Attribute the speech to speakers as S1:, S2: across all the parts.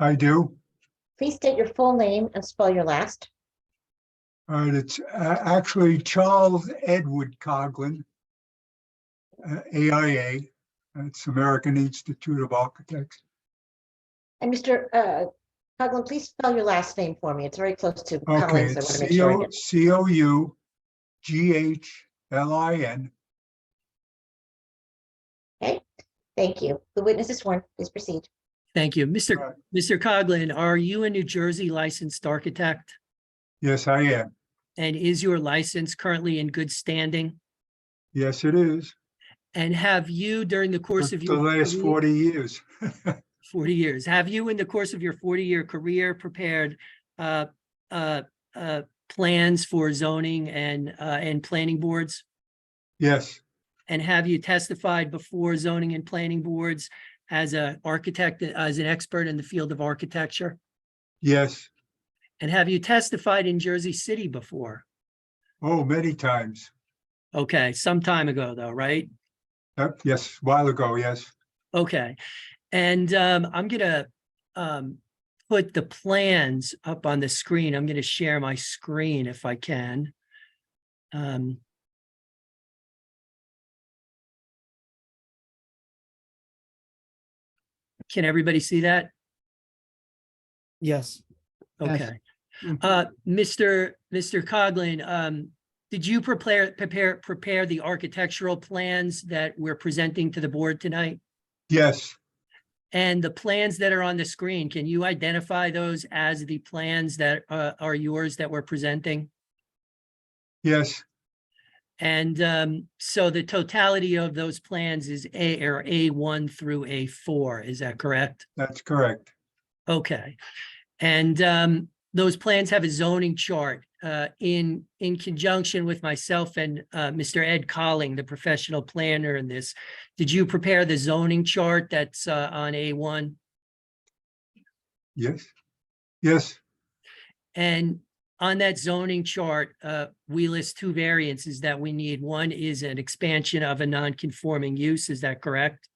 S1: I do.
S2: Please state your full name and spell your last.
S1: All right, it's a- actually Charles Edward Coglin, uh, AIA, that's American Institute of Architects.
S2: And Mr. uh, Coghlan, please spell your last name for me. It's very close to
S1: Okay,
S2: Collins. I want
S1: it's
S2: to make sure I get.
S1: C O U G H L I N.
S2: Thank you. The witness is sworn. Please proceed.
S3: Thank you. Mr.
S1: Right.
S3: Mr. Coglin, are you a New Jersey licensed architect?
S1: Yes, I am.
S3: And is your license currently in good standing?
S1: Yes, it is.
S3: And have you during the
S1: For
S3: course of
S1: The
S3: your
S1: last
S3: career-
S1: 40 years.
S3: 40 years, have you in the course of your 40-year career prepared uh, uh, uh, plans for zoning and, uh, and planning boards?
S1: Yes,
S3: And have you testified before zoning and planning boards as an architect, as an expert in the field of architecture?
S1: yes.
S3: And have you testified in Jersey City before?
S1: Oh, many times.
S3: Okay, some time ago though, right?
S1: Yep, Yes, while ago, yes.
S3: Okay, and um, I'm gonna um, put the plans up on the screen. I'm gonna share my screen if I can. Um, Can everybody see that?
S4: Yes. Yes.
S3: Okay.
S4: Mhm.
S3: Uh, Mr. Mr. Coglin, um, did you prepare, prepare, prepare the architectural plans that we're presenting to the board tonight?
S1: Yes,
S3: And the plans that are on the screen, can you identify those as the plans that uh, are yours that we're presenting?
S1: yes,
S3: And um, so the totality of those plans is A or A1 through A4, is that correct?
S1: that's correct.
S3: Okay. And um, those plans have a zoning chart uh, in, in conjunction with myself and uh, Mr. Ed Colling, the professional planner in this. Did you prepare the zoning chart that's uh, on A1?
S1: Yes, yes.
S3: And on that zoning chart, uh, we list two variances that we need. One is an expansion of a non-conforming use, is that correct?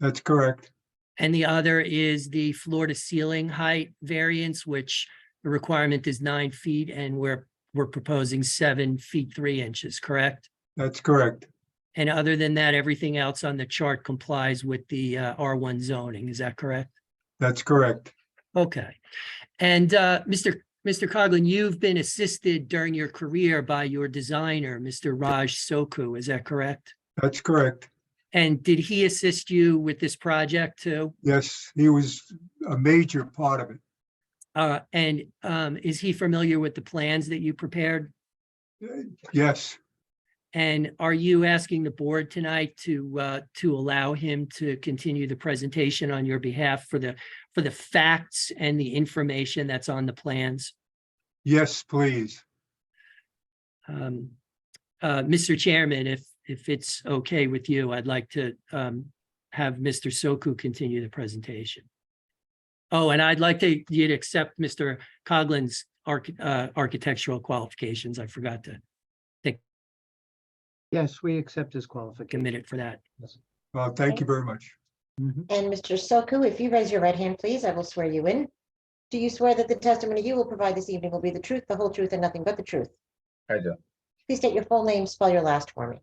S1: That's correct.
S3: And the other is the floor to ceiling height variance, which the requirement is nine feet and we're, we're proposing seven feet, three inches, correct?
S1: That's correct.
S3: And other than that, everything else on the chart complies with the, uh, R1 zoning, is that correct?
S1: That's correct.
S3: Okay. And uh, Mr. Mr. Coglin, you've been assisted during your career by your designer, Mr. Raj Soku, is that correct?
S1: That's correct.
S3: And did he assist you with this project too?
S1: Yes, he was a major part of it.
S3: Uh, And um, is he familiar with the plans that you prepared?
S1: Yes,
S3: And are you asking the board tonight to uh, to allow him to continue the presentation on your behalf for the for the facts and the information that's on the plans?
S1: yes, please.
S3: Um, uh, Mr. Chairman, if, if it's okay with you, I'd like to, um, have Mr. Soku continue the presentation. Oh, and I'd like to, you to accept Mr. Coglin's arch, uh, architectural qualifications. I forgot to
S4: Yes, we accept his
S3: take a
S4: qualification.
S3: minute for that.
S1: Well, thank you very much.
S4: Mhm.
S2: And Mr. Soku, if you raise your right hand, please, I will swear you in. Do you swear that the testimony you will provide this evening will be the truth, the whole truth, and nothing but the truth?
S5: I do.
S2: Please state your full name, spell your last for me.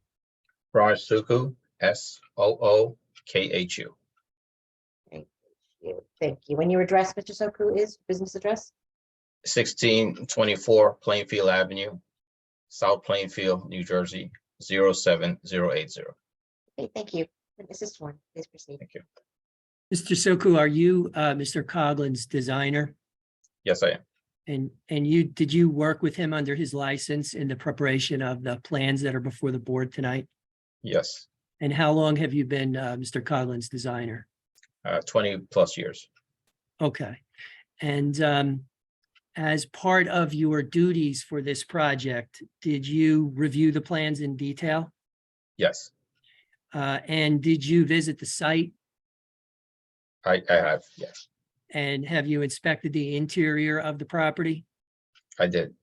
S5: Raj Suku, S O O K H U.
S2: You- Thank you. And your address, Mr. Soku, is business address?
S5: Sixteen twenty-four Plainfield Avenue, South Plainfield, New Jersey, 07080.
S2: Okay, thank you. Witness is sworn. Please proceed.
S5: Thank you.
S3: Mr. Soku, are you, uh, Mr. Coglin's designer?
S5: Yes, I am.
S3: And, and you, did you work with him under his license in the preparation of the plans that are before the board tonight?
S5: Yes,
S3: And how long have you been, uh, Mr. Coglin's designer?
S5: uh, twenty plus years.
S3: Okay, and um, as part of your duties for this project, did you review the plans in detail?
S5: Yes,
S3: Uh, and did you visit the site?
S5: I, I have. Yes,
S3: And have you inspected the interior of the property?
S5: I did.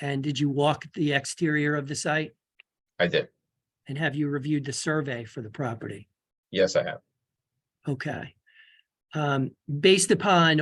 S3: And did you walk the exterior of the site?
S5: I did.
S3: And have you reviewed the survey for the property?
S5: Yes, I have.
S3: Okay. Um, based upon